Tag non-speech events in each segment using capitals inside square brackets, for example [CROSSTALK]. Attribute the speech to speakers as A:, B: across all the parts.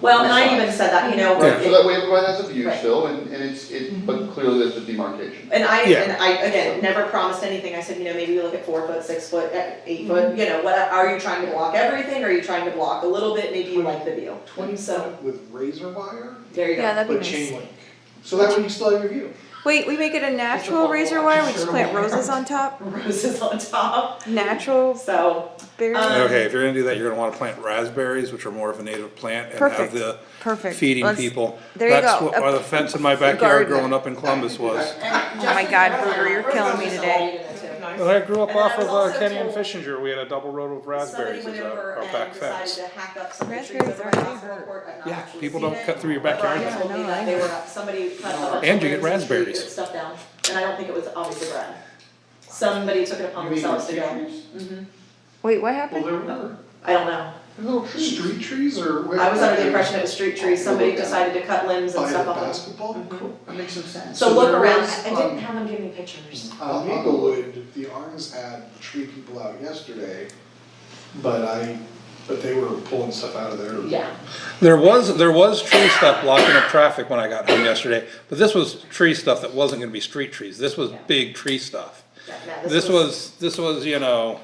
A: Well, and I even said that, you know,
B: Yeah.
A: it-
C: So that way everybody has a view
A: Right. Mm-hmm.
C: still, and, and it's, it, but clearly there's a demarcation.
A: And I,
B: Yeah.
A: and I, again, never promised anything, I said, you know, maybe we look at four foot, six foot, eh, eight foot, you know, what, are you trying to block everything, are you trying to block a little bit, maybe you like the view,
D: Twenty
A: so,
D: foot with razor wire,
A: there you
E: Yeah,
A: go.
E: that'd be
D: but
E: nice.
D: chain link. So that way you still have your view.
E: Wait, we make it a natural
D: wall
E: razor
D: watch,
E: wire,
D: it's
E: we just
D: sort of
E: plant
D: wire.
E: roses on top,
A: [LAUGHS] Roses on top,
E: natural
A: so,
E: berries.
A: Um,
B: Okay, if you're gonna do that, you're gonna wanna plant raspberries, which are more of a native plant, and have
E: Perfect.
B: the
E: Perfect.
B: feeding
E: Let's-
B: people.
E: there you
B: That's
E: go.
B: what, why the fence in my backyard
E: garden.
B: growing up in Columbus was.
A: [LAUGHS] and
E: Oh my
A: Justin,
E: God,
A: I don't
E: Berger,
A: know,
E: you're
A: we're
E: killing me
A: just
E: today.
A: all eating it too.
F: Well, I grew up
A: And
F: off
A: I was of,
B: Off of
A: uh, also
B: uh,
A: Kenny
B: Kenny
A: and
B: and
A: told-
B: Fishinger, we had a double row of
A: Somebody
B: raspberries
A: went
B: as
A: over
B: our,
A: and
B: back
A: decided
B: fence.
A: to hack up some of the trees
E: Raspberries
A: over
E: are
A: at
E: really
A: Hospital
E: hurt.
A: Court. I've not
B: Yeah,
A: actually
B: people
A: seen
B: don't
A: it.
B: cut through your
A: Brian
B: backyard.
E: Yeah, I
A: told me
E: know,
A: that
E: I
A: they
E: know.
A: were, somebody cut a bunch
B: And
A: of
B: you get
A: limbs and trees and
B: raspberries.
A: stuff down, and I don't think it was obviously Brad. Somebody took it upon
C: You mean
A: themselves to
C: street
A: go,
C: trees?
A: mhm,
E: Wait, what
D: Well,
E: happened?
D: there were
A: I don't know.
C: They're Little trees.
D: street trees or where?
A: I was under the impression it was street trees, somebody decided to cut limbs and
D: By
A: stuff Mm-hmm.
D: the
A: off.
D: basketball court.
C: That makes some sense.
A: So
D: So
A: look
D: there
A: around,
D: was,
A: I I didn't
D: um,
A: have them give me pictures.
D: On Eaglewood, Uh, the Arns had tree people out yesterday, but I, but they were pulling stuff out of there.
A: Yeah,
B: There was, there was tree stuff blocking up traffic when I got home yesterday, but this was tree stuff that wasn't gonna be street trees, this was
A: Yeah.
B: big tree stuff.
A: that, that- this was.
B: This was, this was, you know,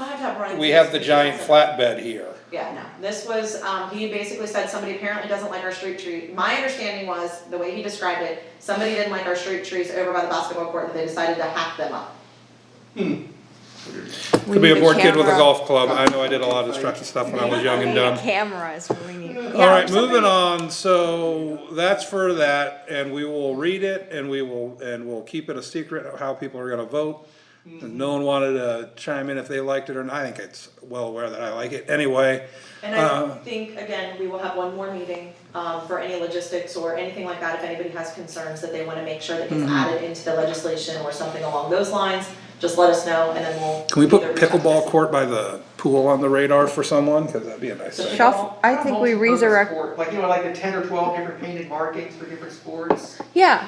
A: I have to have Brian.
B: we
A: see
B: have
A: this
B: the
A: because
B: giant
A: it's-
B: flatbed here.
A: Yeah, no, this was, um, he basically said somebody apparently doesn't like our street tree, my understanding was, the way he described it, somebody didn't like our street trees over by the basketball court, and they decided to hack them up.
E: We
B: Could be
E: need
B: a bored kid with a
E: camera.
B: golf club, I know I did a lot of destructive stuff when I was young and dumb.
E: Cameras, we need.
B: All right, moving on, so that's for that, and we will read it, and we will, and we'll keep it a secret of how people are gonna vote. And no one wanted to chime in if they liked it or not, I think it's well aware that I like it anyway.
A: And I
B: Uh,
A: think, again, we will have one more meeting, um, for any logistics or anything like that, if anybody has concerns that they wanna make sure that
B: Hmm.
A: gets added into the legislation or something along those lines, just let us know, and then we'll.
B: Can we put
A: either reach out to
B: pickleball
A: us.
B: court by the pool on the radar for someone, cause that'd be a nice thing.
E: Shuff, I think we resurrect,
G: Multi-sport, Like, you know, like the ten or twelve different painted markings for different sports.
E: yeah,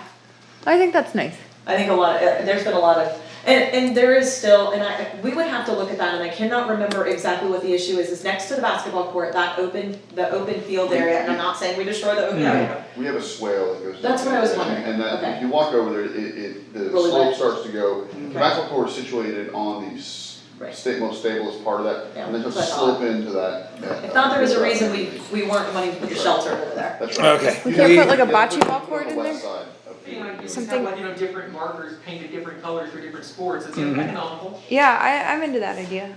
E: I think that's nice.
A: I think a lot, uh, there's been a lot of, and, and there is still, and I, we would have to look at that, and I cannot remember exactly what the issue is, is next to the basketball court, that open, the open field area, and I'm not saying we destroy the open area.
C: We have a swale that goes.
A: That's
C: down
A: what I was
C: there, and-
A: wondering.
C: And that,
A: Okay.
C: if you walk over there, it, it, the
A: Really
C: slope
A: wet.
C: starts to go, the basketball court is situated on the s-
A: Right.
C: sta- most stablest part of that,
A: Yeah,
C: and then just
A: that's what I
C: slip into that. that-
A: If not, there was a reason we, we weren't wanting to put the shelter over there.
C: That's right.
B: Okay.
E: We can't put like a
C: You have to
E: bocce
C: put-
E: ball
C: put
E: court
C: the
E: in
C: west
E: there?
C: side of
G: You know, you
C: the-
G: just
E: Something-
G: have like, you know, different markers painted different colors for different sports, it's
E: Mm-hmm.
G: economical.
E: Yeah, I, I'm into that idea.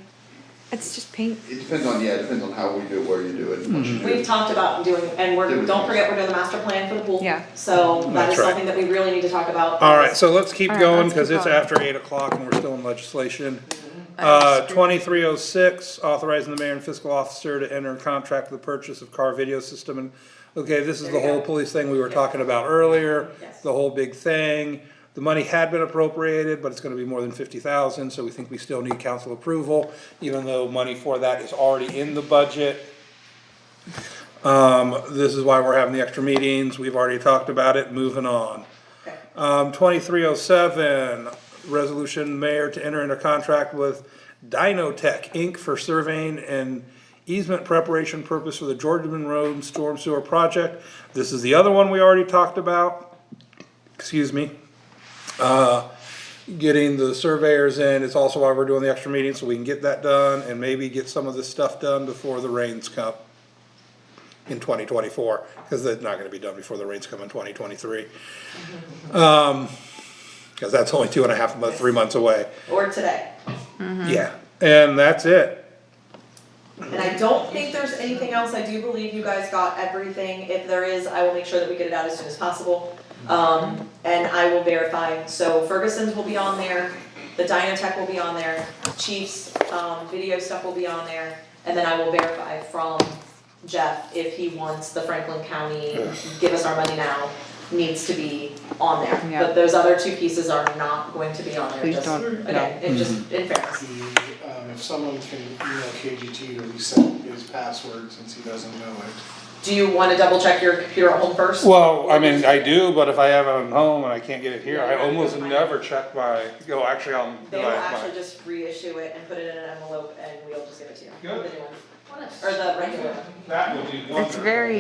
E: It's just paint.
C: It depends on, yeah, it depends on how we do it, where you do it, and what you do.
A: We've talked about doing, and we're, don't forget, we're doing the master plan for the pool.
E: Yeah.
A: So that is
B: That's right.
A: something that we really need to talk about.
B: Alright, so let's keep
E: All right,
B: going,
E: let's
B: cause
E: keep
B: it's
E: going.
B: after eight o'clock and we're still in legislation.
E: I
B: Uh, twenty-three oh six, authorizing the mayor and fiscal officer to enter a contract for the purchase of car video system and, okay, this is the
A: There you
B: whole
A: go.
B: police thing we were talking about earlier.
A: Yes.
B: The whole big thing, the money had been appropriated, but it's gonna be more than fifty thousand, so we think we still need council approval, even though money for that is already in the budget. Um, this is why we're having the extra meetings, we've already talked about it, moving on.
A: Okay.
B: Um, twenty-three oh seven, resolution mayor to enter into contract with Dynotech Inc. for surveying and easement preparation purpose for the Georgian Road Storm Sewer Project. This is the other one we already talked about, excuse me. Uh, getting the surveyors in, it's also why we're doing the extra meeting, so we can get that done and maybe get some of this stuff done before the rains come in twenty twenty-four, cause that's not gonna be done before the rains come in twenty twenty-three.
A: Mm-hmm.
B: Um, Cause that's only two and a half months, three months away.
A: Or today. Mm-hmm.
B: Yeah, and that's it.
A: And I don't think there's anything else, I do believe you guys got everything, if there is, I will make sure that we get it out as soon as possible. Um, and I will verify, so Ferguson's will be on there, the Dynatech will be on there, Chief's, um, video stuff will be on there. And then I will verify from Jeff if he wants the Franklin County, give us our money now, needs to be on there.
E: Yeah.
A: But those other two pieces are not going to be on there,
E: Please
A: just,
E: don't, no.
A: again, it just, in fairness.
D: The, um, if someone can email KGT to reset his password since he doesn't know it.
A: Do you wanna double check your computer at home first?
B: Well, I mean, I do, but if I have it at home and I can't get it here, I almost never check my, go, actually, I'm.
A: They will actually just reissue it and put it in an envelope and we'll just give it to you.
B: Good.
A: The new one. Or the regular one.
B: That would be
E: It's very